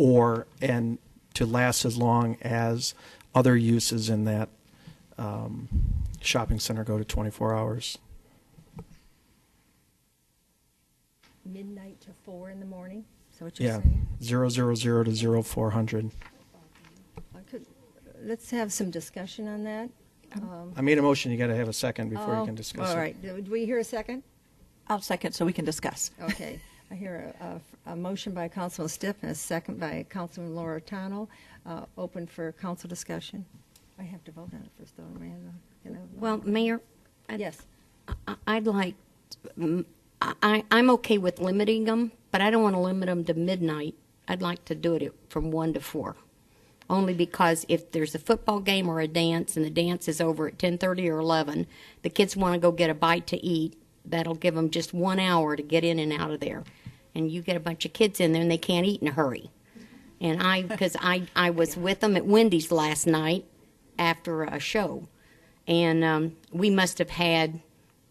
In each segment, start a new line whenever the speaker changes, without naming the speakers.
or and to last as long as other uses in that um, shopping center go to 24 hours.
midnight to four in the morning? Is that what you're
Yeah,
saying?
zero zero zero to zero four hundred.
I could- Let's have some discussion on that. Um,
I made a motion. You got to have a second before
oh,
you can discuss it.
All right, do do we hear a second?
I'll second so we can discuss.
Okay, I hear a- a, f- a motion by Councilman Stiff and a second by Councilman Lorentano, uh, open for council discussion. I have to vote on it first, though, Amanda, you know.
Well, Mayor, I-
Yes,
I- I'd like, mm, I, I- I'm okay with limiting them, but I don't want to limit them to midnight. I'd like to do it at- from one to four, only because if there's a football game or a dance and the dance is over at 10:30 or 11, the kids want to go get a bite to eat. That'll give them just one hour to get in and out of there, and you get a bunch of kids in there and they can't eat in a hurry. And I, because I, I was with them at Wendy's last night after a show, and um, we must have had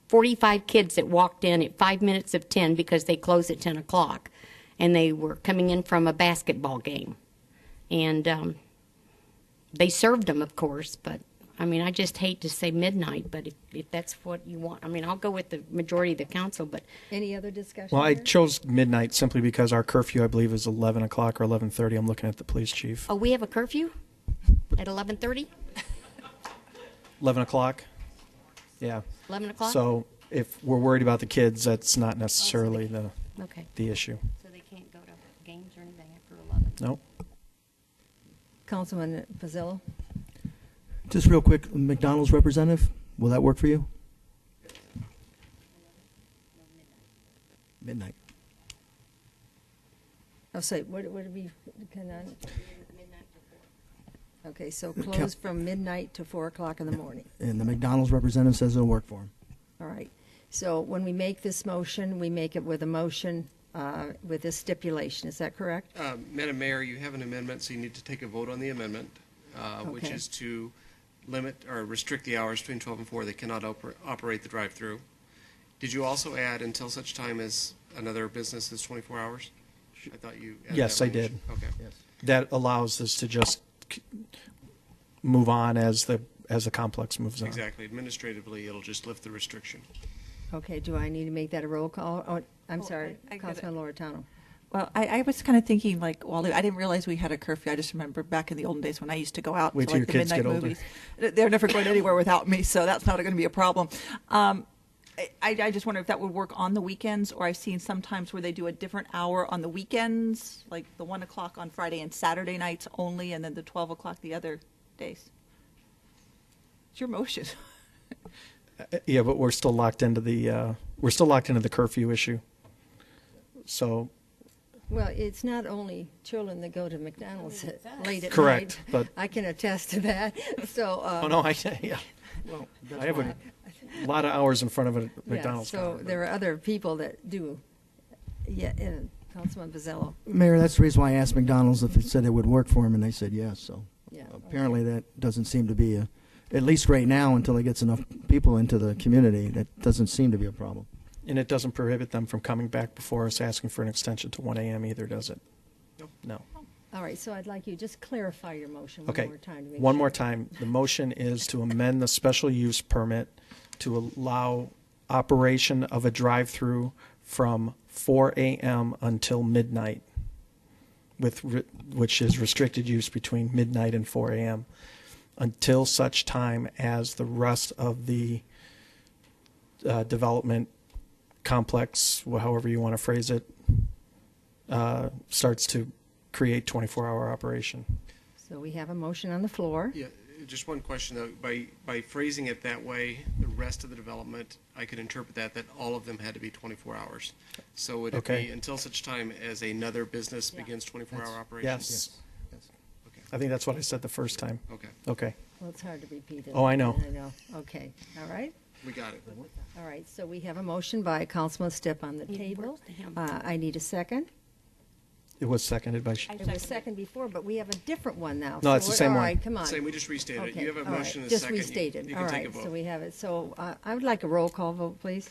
45 kids that walked in at five minutes of 10 because they close at 10 o'clock, and they were coming in from a basketball game, and um, they served them, of course, but. I mean, I just hate to say midnight, but if, if that's what you want, I mean, I'll go with the majority of the council, but
any other discussion?
Well, I
here?
chose midnight simply because our curfew, I believe, is 11 o'clock or 11:30. I'm looking at the police chief.
Oh, we have a curfew at 11:30,
11 o'clock. Yeah.
11 o'clock?
So if we're worried about the kids, that's not necessarily the
Okay.
the issue.
So they can't go to games or anything after 11?
Nope.
Councilman Pizzillo?
Just real quick, McDonald's representative, will that work for you? Midnight.
Oh, sorry, what what did we, can I? Okay, so close from midnight to four o'clock in the morning.
And the McDonald's representative says it'll work for him.
All right. So when we make this motion, we make it with a motion uh, with this stipulation. Is that correct?
Uh, Madam Mayor, you have an amendment, so you need to take a vote on the amendment, uh, which
Okay.
is to limit or restrict the hours between 12 and 4. They cannot oper- operate the drive-through. Did you also add until such time as another business is 24 hours? I thought you added
Yes,
that
I did.
language. Okay.
That allows us to just c- move on as the as the complex moves on.
Exactly. Administratively, it'll just lift the restriction.
Okay, do I need to make that a roll call? Oh, I'm
Oh,
sorry,
I- I get it.
Councilman Loretano.
Well, I, I was kind of thinking like Wally. I didn't realize we had a curfew. I just remember back in the olden days when I used to go out
Wait
to
till
like
your
the
kids
midnight
get older.
movies. They're never going anywhere without me, so that's not going to be a problem. Um, I, I just wonder if that would work on the weekends, or I've seen sometimes where they do a different hour on the weekends, like the one o'clock on Friday and Saturday nights only, and then the twelve o'clock the other days. It's your motion.
Uh, Yeah, but we're still locked into the uh, we're still locked into the curfew issue. So
Well, it's not only children that go to McDonald's at- late at night.
Correct, but-
I can attest to that, so. uh,
Oh no, I yeah. I have a lot of hours in front of a
yeah,
McDonald's.
So
counter.
there are other people that do. Yeah, and Councilman Pizzello,
Mayor, that's the reason why I asked McDonald's if it said it would work for him, and they said yes, so.
yeah.
Apparently, that doesn't seem to be a, at least right now, until it gets enough people into the community, that doesn't seem to be a problem.
And it doesn't prohibit them from coming back before us asking for an extension to 1 a.m. either, does it? No.
All right, so I'd like you, just clarify your motion one
Okay.
more time. to make
One more
sure.
time. The motion is to amend the special use permit to allow operation of a drive-through from 4 a.m. until midnight, with, re- which is restricted use between midnight and 4 a.m., until such time as the rest of the uh, development complex, wh- however you want to phrase it, uh, starts to create 24-hour operation.
So we have a motion on the floor.
Yeah, just one question, though. By, by phrasing it that way, the rest of the development, I could interpret that, that all of them had to be 24 hours. So would it
Okay.
be until such time as another business begins 24-hour operations?
Yes.
Okay.
I think that's what I said the first time.
Okay,
Okay.
Well, it's hard to repeat it.
Oh, I know.
I know. Okay, all right.
we got it.
All right, so we have a motion by Councilman Stipp on the
Need
table.
words to him.
Uh, I need a second.
It was seconded by,
It was second before, but we have a different one now.
No, it's the
So what-
same
All
one.
right, come on.
Same, we just restated it.
Okay,
You have a
all right,
motion and a second. You-
Just restated,
you
all
can take a
right, so
vote.
we have it. So uh, I would like a roll call vote, please.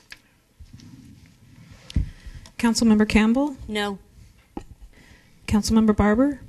Councilmember Campbell,
No.
Councilmember Barber,